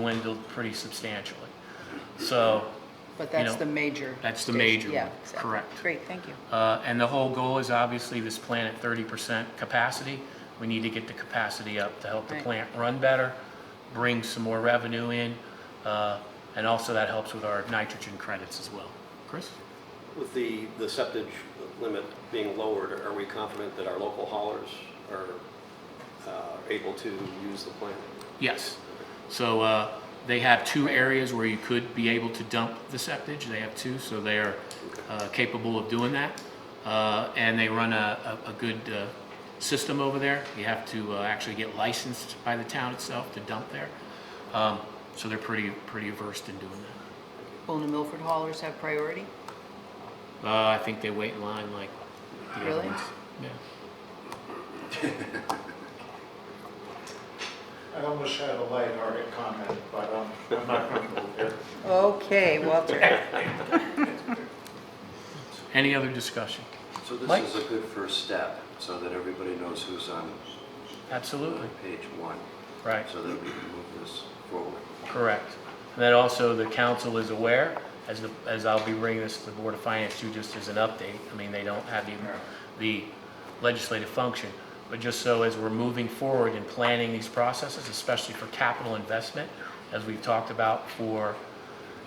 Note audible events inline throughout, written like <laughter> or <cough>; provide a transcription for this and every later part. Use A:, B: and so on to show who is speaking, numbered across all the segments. A: dwindled pretty substantially. So
B: But
A: you
B: that's
A: know,
B: the major.
A: that's the major
B: station. Yeah,
A: one,
B: exactly.
A: correct.
B: Great, thank you.
A: Uh, And the whole goal is obviously this plant at 30% capacity. We need to get the capacity up to help the
B: Right.
A: plant run better, bring some more revenue in, uh, and also that helps with our nitrogen credits as well. Chris?
C: With the, the septage limit being lowered, are we confident that our local haulers are uh, able to use the plant?
A: Yes. So uh, they have two areas where you could be able to dump the septage. They have two, so they are uh, capable of doing that. Uh, And they run a, a a good uh, system over there. You have to uh, actually get licensed by the town itself to dump there. Um, So they're pretty, pretty versed in doing that.
B: Will New Milford haulers have priority?
A: Uh, I think they wait in line like the other
B: Really?
A: ones. Yeah.
D: I almost had a lighthearted comment, but um, I'm not comfortable here.
B: Okay,
A: <laughs>
B: Walter.
A: Any other discussion?
E: So
A: Mike?
E: this is a good first step, so that everybody knows who's on
A: Absolutely.
E: page one,
A: Right.
E: so that we can move this forward.
A: Correct. And then also, the council is aware, as the, as I'll be bringing this to the Board of Finance too, just as an update. I mean, they don't have the, the legislative function. But just so as we're moving forward in planning these processes, especially for capital investment, as we've talked about for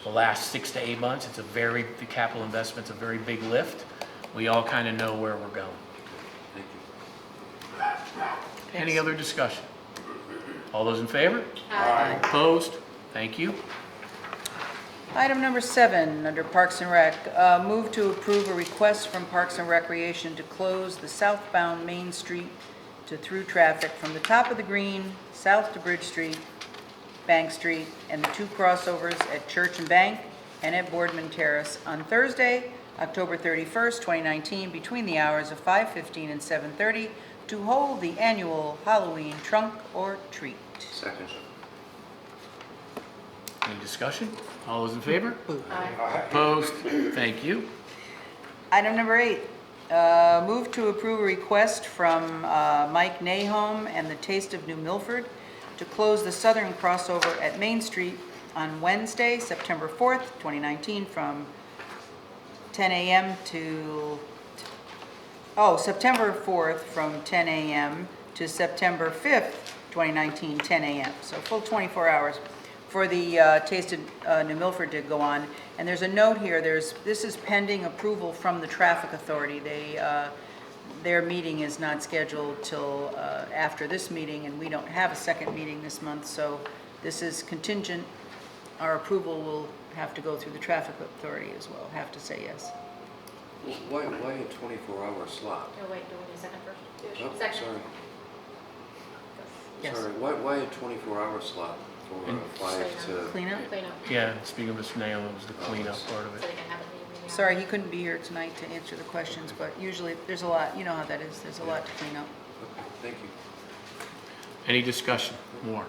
A: the last six to eight months, it's a very, the capital investment's a very big lift. We all kind of know where we're going.
E: Thank you.
A: Any other discussion? All those in favor?
B: Aye.
A: Opposed? Thank you.
B: Item number seven, under Parks and Rec, uh, move to approve a request from Parks and Recreation to close the southbound Main Street to through traffic from the top of the green, south to Bridge Street, Bank Street, and the two crossovers at Church and Bank and at Boardman Terrace on Thursday, October 31st, 2019, between the hours of 5:15 and 7:30, to hold the annual Halloween trunk or treat.
E: Second.
A: Any discussion? All those in favor? Opposed? Thank you.
B: Item number eight, uh, move to approve a request from uh, Mike Nahom and the Taste of New Milford to close the southern crossover at Main Street on Wednesday, September 4th, 2019, from 10 a.m. to, oh, September 4th, from 10 a.m. to September 5th, 2019, 10 a.m. So full 24 hours for the uh, Taste of uh, New Milford to go on. And there's a note here, there's, this is pending approval from the traffic authority. They, uh, their meeting is not scheduled till uh, after this meeting, and we don't have a second meeting this month, so this is contingent. Our approval will have to go through the traffic authority as well, have to say yes.
E: Why, why a 24-hour slot?
F: Oh, wait, do we need a second first?
E: Oh,
F: Second.
E: Sorry,
B: Yes.
E: sorry, why, why a 24-hour slot for
A: Mm.
E: a five to?
B: Clean up?
F: Clean up,
A: Yeah, speaking of Mr. Nail, it was the cleanup part of
F: so they
A: it.
F: can have a meeting.
B: Sorry, he couldn't be here tonight to answer the questions, but usually, there's a lot, you know how that is, there's a lot to clean up.
E: Okay, Thank you.
A: Any discussion? More?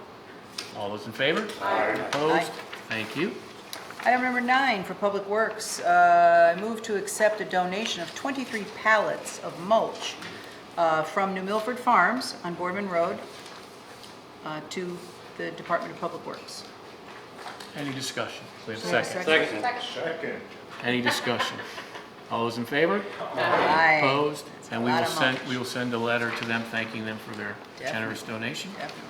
A: All those in favor? Opposed? Thank you.
B: Item number nine for Public Works, uh, I move to accept a donation of 23 pallets of mulch uh, from New Milford Farms on Boardman Road uh, to the Department of Public Works.
A: Any discussion? We have a
B: Do we have a
A: second.
B: second?
D: Second,
A: Any discussion? All those in favor?
B: Aye.
A: Opposed? And we
B: lot
A: will
B: of
A: send,
B: mulch.
A: we will send a letter to them thanking them for their
B: Definitely.
A: generous donation.
B: Definitely.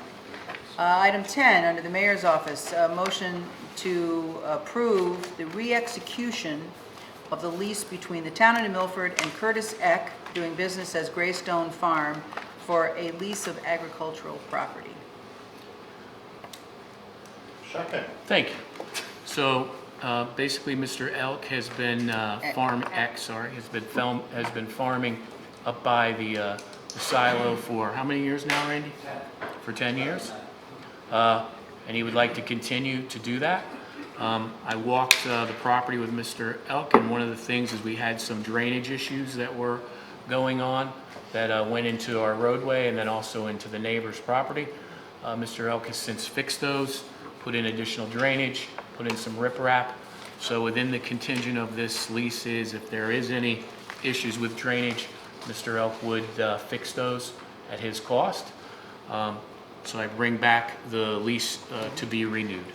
B: Uh, Item 10, under the mayor's office, a motion to approve the re-execution of the lease between the town of New Milford and Curtis Eck, doing business as Greystone Farm, for a lease of agricultural property.
D: second.
A: Thank you. So uh, basically, Mr. Elk has been, uh,
B: Eck.
A: Farm X, sorry, has been film, has been farming up by the uh, the silo for how many years now, Randy? For 10 years? Uh, And he would like to continue to do that. Um, I walked uh, the property with Mr. Elk, and one of the things is we had some drainage issues that were going on that uh, went into our roadway and then also into the neighbor's property. Uh, Mr. Elk has since fixed those, put in additional drainage, put in some riprap. So within the contingent of this lease is if there is any issues with drainage, Mr. Elk would uh, fix those at his cost. Um, So I bring back the lease uh, to be renewed.